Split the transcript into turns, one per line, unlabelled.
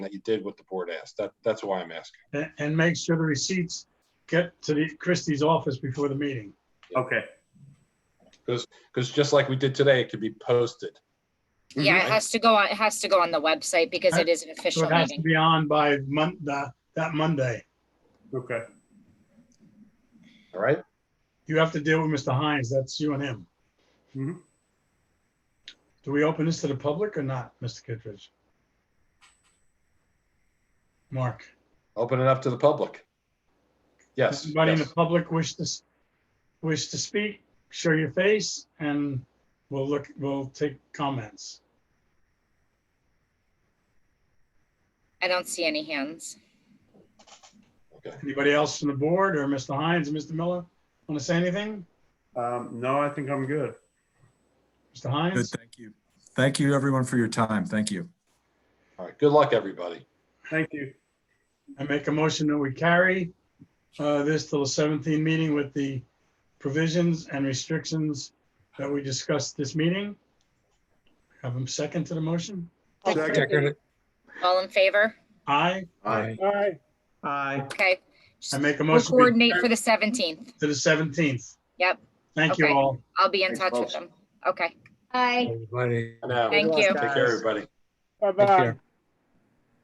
that you did with the board asked. That, that's why I'm asking.
and, and make sure the receipts get to the Christie's office before the meeting.
Okay,
Because just like we did today, it could be posted.
Yeah, it has to go on, it has to go on the website because it is an
So
official
it has to
meeting.
be on by Mon, that, that Monday.
okay.
All right?
You have to deal with Mr. Hines, that's you and him.
Mhm.
Do we open this to the public or not, Mr. Kittredge? Mark,
Open it up to the public. Yes.
anybody in the
yes.
public wish to, s- wish to speak, show your face, and we'll look, we'll take comments.
I don't see any hands.
Anybody else from the board or Mr. Hines and Mr. Miller want to say anything?
Um, no, I think I'm good.
Mr. Hines?
Good, thank you. Thank you, everyone, for your time. Thank you.
All right. Good luck, everybody.
Thank you.
I make a motion that we carry uh, this till the 17th meeting with the provisions and restrictions that we discussed this meeting. Have them second to the motion.
All in favor?
Aye.
Aye.
Aye.
Aye.
Okay.
I make a
We'll
motion we
coordinate
carry
for the seventeenth.
to the 17th.
Yep.
Thank you
Okay.
all.
I'll be in
Thanks,
touch with
folks.
them. Okay.
Bye.
I know.
Thank you.
Take care, everybody.
Bye-bye.
care.